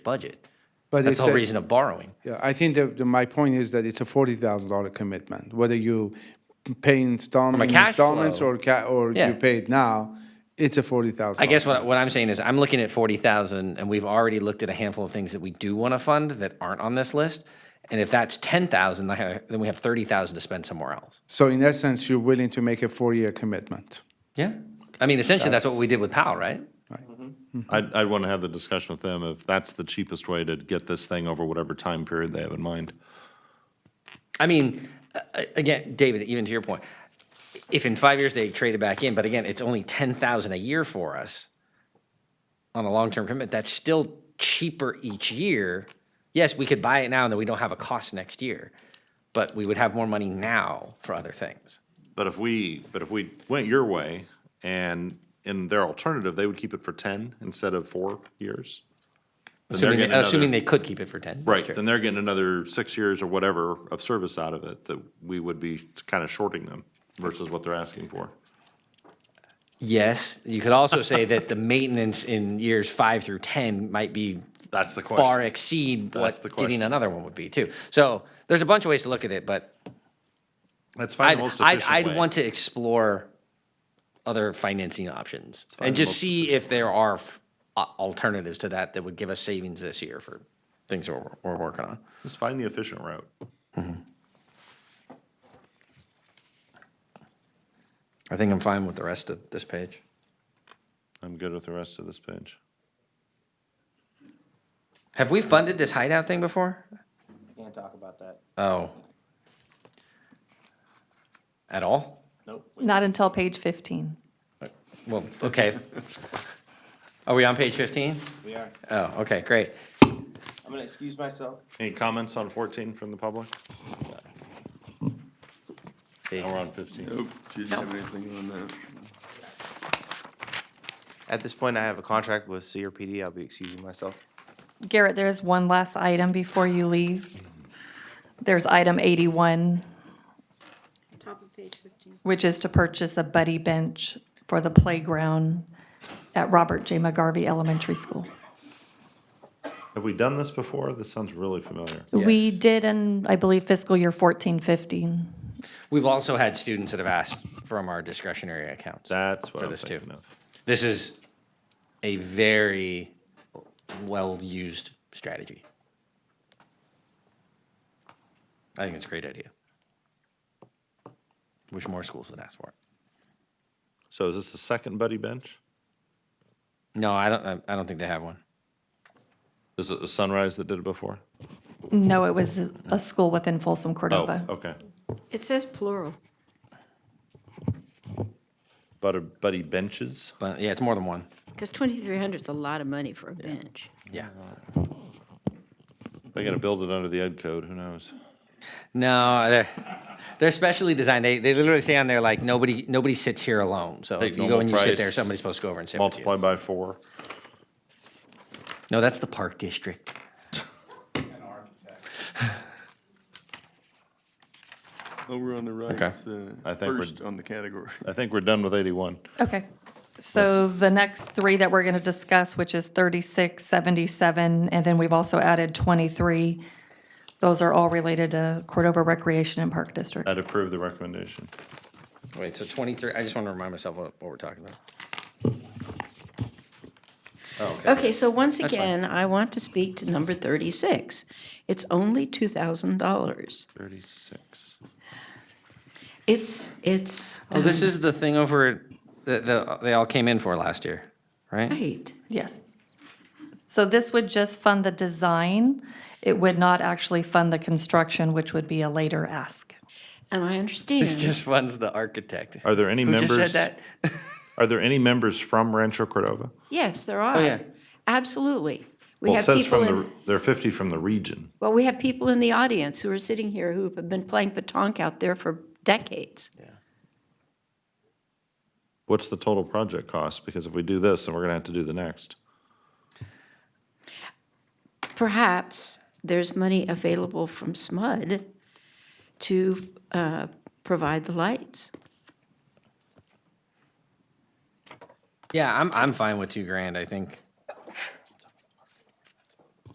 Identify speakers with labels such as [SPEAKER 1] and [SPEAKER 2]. [SPEAKER 1] budget.
[SPEAKER 2] But
[SPEAKER 1] That's
[SPEAKER 2] it's
[SPEAKER 1] the whole
[SPEAKER 2] a-
[SPEAKER 1] reason of borrowing.
[SPEAKER 2] Yeah, I think that the- my point is that it's a forty thousand dollar commitment, whether you pay installment,
[SPEAKER 1] cash
[SPEAKER 2] installments
[SPEAKER 1] flow.
[SPEAKER 2] or ca- or
[SPEAKER 1] Yeah.
[SPEAKER 2] you pay it now, it's a forty thousand.
[SPEAKER 1] I guess what, what I'm saying is I'm looking at 40,000 and we've already looked at a handful of things that we do want to fund that aren't on this list. And if that's 10,000, then I have- then we have 30,000 to spend somewhere else.
[SPEAKER 2] So in essence, you're willing to make a four year commitment.
[SPEAKER 1] Yeah. I mean, essentially that's, what we did with Powell, right?
[SPEAKER 3] I'd, I'd want to have the discussion with them if that's the cheapest way to get this thing over whatever time period they have in mind.
[SPEAKER 1] I mean, a- a- again, David, even to your point, if in five years they trade it back in, but again, it's only 10,000 a year for us on a long-term commitment, that's still cheaper each year. Yes, we could buy it now and then we don't have a cost next year, but we would have more money now for other things.
[SPEAKER 3] But if we, but if we went your way and in their alternative, they would keep it for ten instead of four years. then they're
[SPEAKER 1] Assuming,
[SPEAKER 3] getting another-
[SPEAKER 1] assuming they could keep it for 10.
[SPEAKER 3] Right,
[SPEAKER 1] sure.
[SPEAKER 3] then they're getting another six years or whatever of service out of it that we would be kind of shorting them versus what they're asking for.
[SPEAKER 1] Yes, you could also say that the maintenance in years five through 10 might be
[SPEAKER 3] That's the
[SPEAKER 1] far
[SPEAKER 3] question.
[SPEAKER 1] exceed
[SPEAKER 3] That's
[SPEAKER 1] what
[SPEAKER 3] the
[SPEAKER 1] getting
[SPEAKER 3] question.
[SPEAKER 1] another one would be too. So there's a bunch of ways to look at it, but
[SPEAKER 3] Let's
[SPEAKER 1] I'd,
[SPEAKER 3] find the most
[SPEAKER 1] I'd,
[SPEAKER 3] efficient way.
[SPEAKER 1] I'd want to explore other financing options and just see if there are f- a- alternatives to that that would give us savings this year for things we're, we're working on.
[SPEAKER 3] Just find the efficient route.
[SPEAKER 1] I think I'm fine with the rest of this page.
[SPEAKER 3] I'm good with the rest of this page.
[SPEAKER 1] Have we funded this hideout thing before?
[SPEAKER 4] Can't talk about that.
[SPEAKER 1] Oh. At all?
[SPEAKER 4] Nope. we-
[SPEAKER 5] Not until page 15.
[SPEAKER 1] Well, okay. Are we on page 15?
[SPEAKER 4] We are.
[SPEAKER 1] Oh, okay, great.
[SPEAKER 4] I'm gonna excuse myself.
[SPEAKER 3] Any comments on fourteen from the public? Now we're on fifteen.
[SPEAKER 6] Nope, she didn't have anything on that.
[SPEAKER 4] At this point, I have a contract with CRPD. I'll be excusing myself.
[SPEAKER 5] Garrett, there is one last item before you leave. There's item 81,
[SPEAKER 7] Top of page 15.
[SPEAKER 5] which is to purchase a buddy bench for the playground at Robert J. McGarvey Elementary School.
[SPEAKER 3] Have we done this before? This sounds really familiar.
[SPEAKER 5] We
[SPEAKER 1] Yes.
[SPEAKER 5] did in, I believe, fiscal year 14, 15.
[SPEAKER 1] We've also had students that have asked from our discretionary accounts.
[SPEAKER 3] That's what
[SPEAKER 1] For
[SPEAKER 3] I'm
[SPEAKER 1] this too.
[SPEAKER 3] thinking of.
[SPEAKER 1] This is a very well-used strategy. I think it's a great idea. Wish more schools would ask for it.
[SPEAKER 3] So is this the second buddy bench?
[SPEAKER 1] No, I don't, I- I don't think they have one.
[SPEAKER 3] Is it the Sunrise that did it before?
[SPEAKER 5] No, it was a school within Folsom
[SPEAKER 3] Oh,
[SPEAKER 5] Cordova.
[SPEAKER 3] okay.
[SPEAKER 7] It says plural.
[SPEAKER 3] Butter, buddy benches?
[SPEAKER 1] But yeah, it's more than one.
[SPEAKER 7] Because 2,300 is a lot of money for a bench.
[SPEAKER 1] Yeah.
[SPEAKER 3] They gotta build it under the ed code, who knows?
[SPEAKER 1] No, they're they're specially designed. They they literally say on there like nobody nobody sits here alone. So
[SPEAKER 3] Take
[SPEAKER 1] if you go and you
[SPEAKER 3] normal
[SPEAKER 1] sit there,
[SPEAKER 3] price,
[SPEAKER 1] somebody's supposed to go over and sit with you.
[SPEAKER 3] Multiply by four.
[SPEAKER 1] No, that's the park district.
[SPEAKER 6] Over on the right,
[SPEAKER 1] Okay.
[SPEAKER 6] it's, uh,
[SPEAKER 3] I think we're-
[SPEAKER 6] first on the category.
[SPEAKER 3] I think we're done with eighty-one.
[SPEAKER 5] Okay. So the next three that we're going to discuss, which is 36, 77, and then we've also added 23. Those are all related to Cordova Recreation and Park District.
[SPEAKER 3] I'd approve the recommendation.
[SPEAKER 1] Wait, so 23, I just want to remind myself what, what we're talking about.
[SPEAKER 7] Okay, so once
[SPEAKER 1] That's fine.
[SPEAKER 7] again, I want to speak to number 36. It's only $2,000.
[SPEAKER 3] Thirty-six.
[SPEAKER 7] It's, it's,
[SPEAKER 1] Oh, this is the thing over that the, they all came in for last year, right?
[SPEAKER 7] right.
[SPEAKER 5] Yes. So this would just fund the design. It would not actually fund the construction, which would be a later ask.
[SPEAKER 7] And I
[SPEAKER 1] This
[SPEAKER 7] understand.
[SPEAKER 1] just funds the architect.
[SPEAKER 3] Are there any
[SPEAKER 1] Who just said
[SPEAKER 3] members,
[SPEAKER 1] that?
[SPEAKER 3] are there any members from Rancho Cordova?
[SPEAKER 7] Yes, there
[SPEAKER 1] Oh, yeah.
[SPEAKER 7] are. Absolutely. We
[SPEAKER 3] Well, it
[SPEAKER 7] have
[SPEAKER 3] says
[SPEAKER 7] people
[SPEAKER 3] from the,
[SPEAKER 7] in,
[SPEAKER 3] they're fifty from the region.
[SPEAKER 7] well, we have people in the audience who are sitting here who have been playing petanque out there for decades.
[SPEAKER 3] What's the total project cost? Because if we do this, then we're gonna have to do the next.
[SPEAKER 7] perhaps there's money available from SMUD to uh, provide the lights.
[SPEAKER 1] Yeah, I'm, I'm fine with two grand, I think.